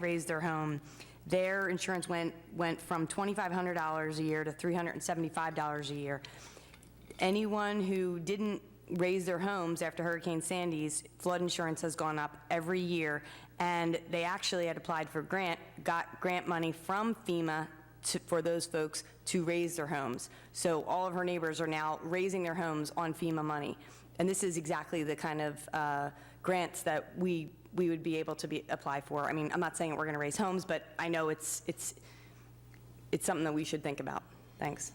raised their home, their insurance went, went from $2,500 a year to $375 a year. Anyone who didn't raise their homes after Hurricane Sandy's, flood insurance has gone up every year, and they actually had applied for grant, got grant money from FEMA to, for those folks to raise their homes. So all of her neighbors are now raising their homes on FEMA money. And this is exactly the kind of uh, grants that we, we would be able to be, apply for. I mean, I'm not saying that we're going to raise homes, but I know it's, it's, it's something that we should think about. Thanks.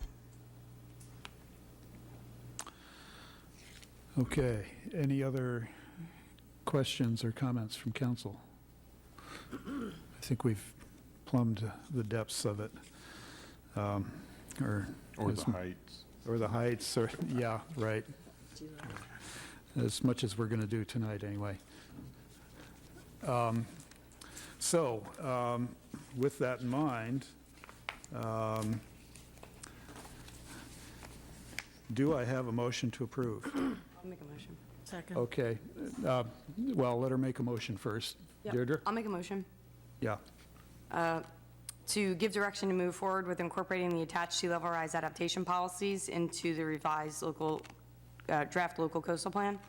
Okay, any other questions or comments from council? I think we've plumbed the depths of it, um, or... Or as the m- heights. Or the heights, or, yeah, right. As much as we're going to do tonight, anyway. Um, So, um, with that in mind, um, do I have a motion to approve? I'll make a motion. Second. Okay, uh, well, let her make a motion first. Deirdre? I'll make a motion. Yeah, to give direction to move forward with incorporating the attached sea level rise adaptation policies into the revised local, uh, draft local coastal plan,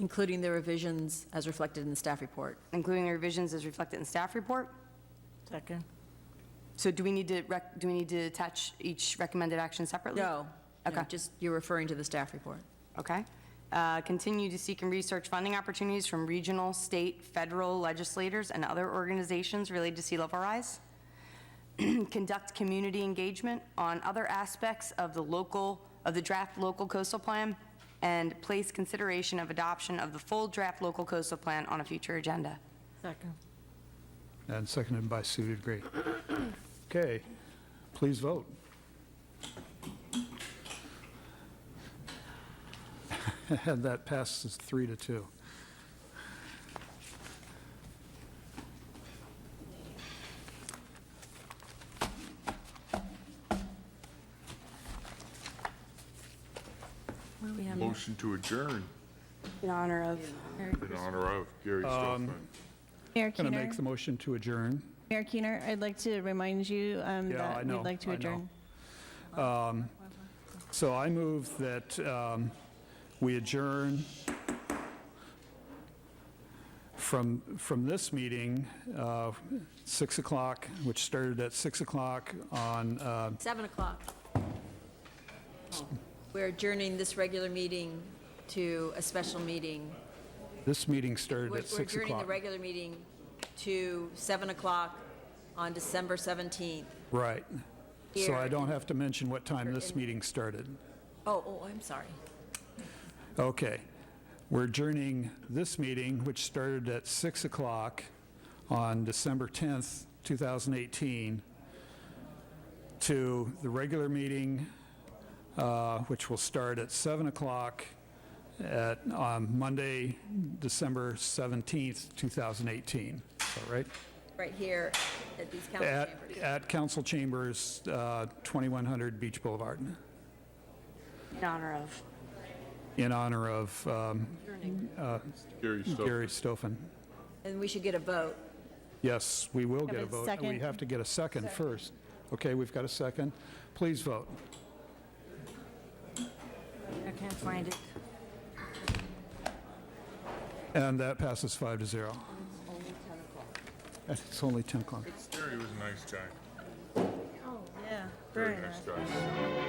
Including the revisions as reflected in the staff report. including the revisions as reflected in staff report. Second. So do we need to, rec- do we need to attach each recommended action separately? No. no, Okay. Just, you're referring to the staff report. Okay. Uh, Continue to seek and research funding opportunities from regional, state, federal legislators and other organizations related to sea level rise. Conduct community engagement on other aspects of the local, of the draft local coastal plan, and place consideration of adoption of the full draft local coastal plan on a future agenda. Second. and seconded by Sue to agree. Okay, please vote. And that passes three to two. Motion to adjourn In honor of. in honor of Gary Stofan. Mayor Going to Keener, make the motion to adjourn. Mayor Keener, I'd like to remind you um, Yeah, I that know, we'd like I to know. adjourn. So I move that um, we adjourn from, from this meeting, uh, 6 o'clock, which started at 6 o'clock on uh, Seven o'clock. We're adjourning this regular meeting to a special meeting. This meeting started We're at we're 6 adjourning the o'clock. regular meeting to seven o'clock on December 17th. Right. So I Here. don't have to mention what time this In- meeting started. Oh, oh, I'm sorry. Okay. We're adjourning this meeting, which started at 6 o'clock on December 10th, 2018, to the regular meeting, uh, which will start at 7 o'clock at, on Monday, December 17th, 2018. Is that right? Right here at these council At, chambers. at Council Chambers, uh, 2100 Beach Boulevard, In honor of. in honor of um, Gary Stofan. Gary Stofan. And we should get a vote. Yes, we will Have get a a vote. We second? have to get a second first. Okay, we've got a second. Please vote. I can't find it. And that passes five to zero. And It's only 10 o'clock. Gary was a nice guy. Yeah, Very nice guy.